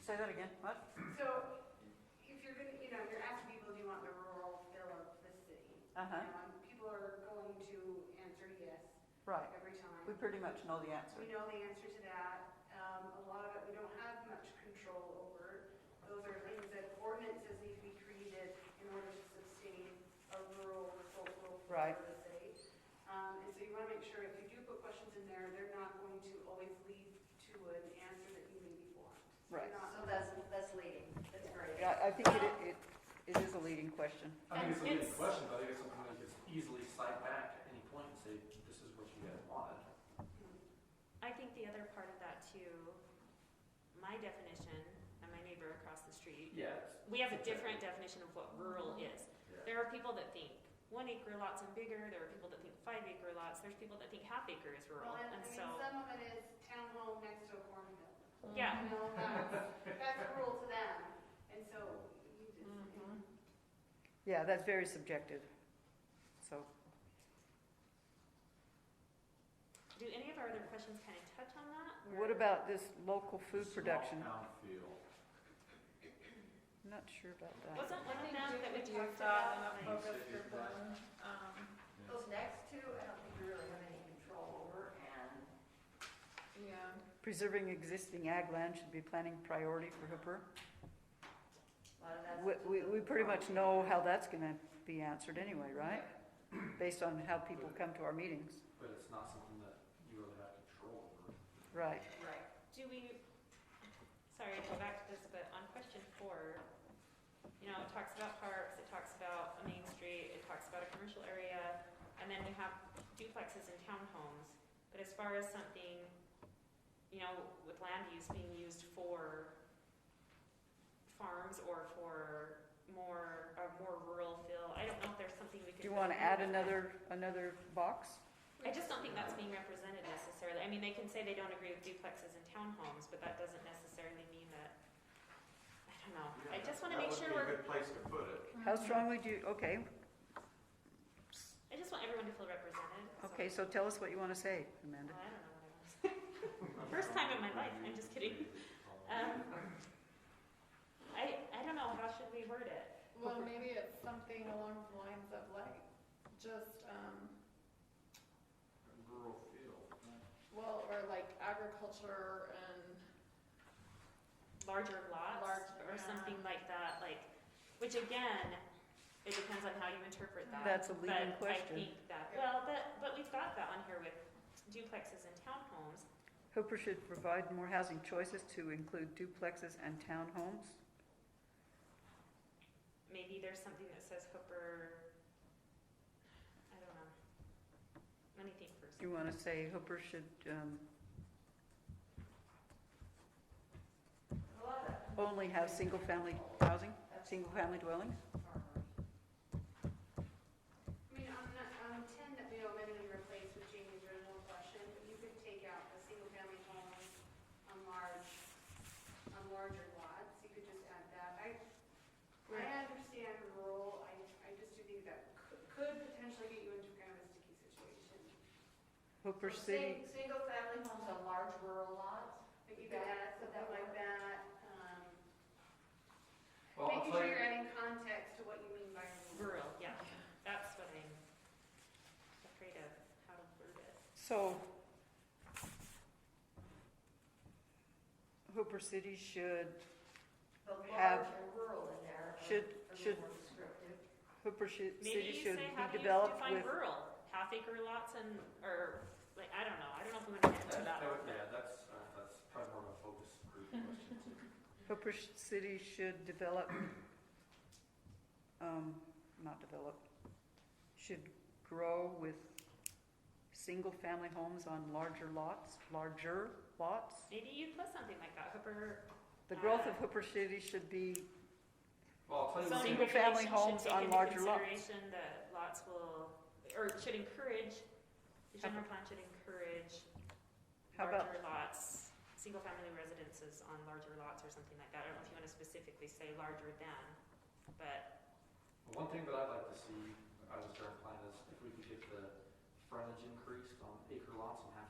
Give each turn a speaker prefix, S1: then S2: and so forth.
S1: Say that again, what?
S2: So if you're gonna, you know, you're asking people, do you want the rural feel of the city?
S1: Uh-huh,
S2: Um, People are going to answer yes
S1: right.
S2: every time.
S1: We pretty much know the answer.
S2: We know the answer to that. Um, a lot of it, we don't have much control over. Those are things that ordinances need to be created in order to sustain a rural, cultural
S1: Right.
S2: part of the city. Um, and so you wanna make sure if you do put questions in there, they're not going to always lead to an answer that you maybe want.
S1: Right.
S2: You're not-
S3: So that's, that's leading, that's great.
S1: Yeah, I think it, it, it is a leading question.
S4: I think it's a
S5: And
S4: good
S5: it's-
S4: question, but I think it's something that you can easily cite back at any point and say, this is what you guys wanted.
S5: I think the other part of that too, my definition and my neighbor across the street,
S4: Yes.
S5: we have a different definition of what rural is.
S4: Yeah.
S5: There are people that think one acre lots and bigger, there are people that think five acre lots, there's people that think half acre is rural,
S2: Well, and, I
S5: and
S2: mean,
S5: so,
S2: some of it is town hall next to a cornfield.
S5: yeah.
S2: You know, that's, that's rural to them, and so you just.
S6: Mm-hmm.
S5: Mhm.
S1: Yeah, that's very subjective, so.
S5: Do any of our other questions kind of touch on that?
S1: What
S5: Or-
S1: about this local food production?
S4: Small town feel.
S1: Not sure about that.
S5: Wasn't one of
S6: think
S5: them that we
S6: do
S5: talked
S6: that
S5: about?
S6: in a
S5: like-
S6: focus group one, um,
S3: Those next two, I don't think we really have any control over, and
S6: yeah.
S1: Preserving existing ag land should be planning priority for Hooper.
S3: a lot of that's.
S1: We, we, we pretty much know how that's gonna be answered anyway, right? Based on how people come to our meetings,
S4: But it's not something that you really have control over.
S1: right?
S3: Right.
S5: Do we, sorry, I go back to this, but on question four, you know, it talks about parks, it talks about a main street, it talks about a commercial area, and then we have duplexes and townhomes. But as far as something, you know, with land use being used for farms or for more, a more rural feel, I don't know if there's something we could.
S1: Do you
S5: put
S1: wanna
S5: in
S1: add
S5: there.
S1: another, another box?
S5: I just don't think that's being represented necessarily. I mean, they can say they don't agree with duplexes and townhomes, but that doesn't necessarily mean that, I don't know. I just wanna make sure
S7: That
S5: we're,
S7: would be a good place to put it.
S1: How strongly do you, okay,
S5: I just want everyone to feel represented. so-
S1: okay, so tell us what you wanna say, Amanda.
S5: Well, I don't know what I want to say. First time in my life, I'm just kidding. Um, I, I don't know, how should we word it?
S6: Well, maybe it's something along the lines of like, just, um,
S4: Rural feel.
S6: well, or like agriculture and,
S5: Larger lots
S6: Large-
S5: or something like that, like, which again, it depends on how you interpret that.
S1: That's a leading
S5: But I
S1: question.
S5: think that, well, but, but we've got that on here with duplexes and townhomes.
S1: Hooper should provide more housing choices to include duplexes and townhomes.
S5: maybe there's something that says Hooper, I don't know. Let me think first.
S1: Do you wanna say Hooper should, um,
S3: A lot of
S1: only have single-family housing, single-family dwellings?
S3: farmers.
S2: I mean, on, the- on ten that we omitted and replaced with Jamie's original question, you could take out the single-family homes on large, on larger lots, you could just add that. I, I understand rural, I, I just do think that could, could potentially get you into kind of a sticky situation.
S1: Hooper
S3: So
S1: City,
S3: sing- Single-family homes on large rural lots,
S2: But you could add something like that, um,
S4: Well, I'll
S2: making
S4: tell
S2: sure
S4: you,
S2: you're adding context to what you mean by rural.
S5: Rural, yeah, that's what I'm afraid of, how to word it.
S1: so. Hooper City should,
S3: the large
S1: Have-
S3: and rural in there. are-
S1: should,
S3: are
S1: should,
S3: more descriptive.
S1: Hooper should,
S5: Maybe
S1: City
S5: you
S1: should
S5: say, how do
S1: be
S5: you
S1: developed
S5: define
S1: with,
S5: rural? Half acre lots and, or, like, I don't know, I don't know if we want to get into
S4: that,
S5: that.
S4: that would, yeah, that's, uh, that's probably more of a focus group question too.
S1: Hooper sh- City should develop, um, not develop, should grow with single-family homes on larger lots, larger lots.
S5: Maybe you put something like that, Hooper.
S1: The growth of Hooper City should be
S4: Well, I'll tell you. what-
S5: zoning
S1: Single-family homes
S5: regulations
S1: on
S5: should take into
S1: larger lots.
S5: Consideration that lots will, or should encourage, the general plan should encourage
S1: How about-
S5: larger lots, single-family residences on larger lots or something like that. I don't know if you want to specifically say larger than, but
S4: One thing that I'd like to see, I was trying to plan is if we could get the frontage increased on acre lots and half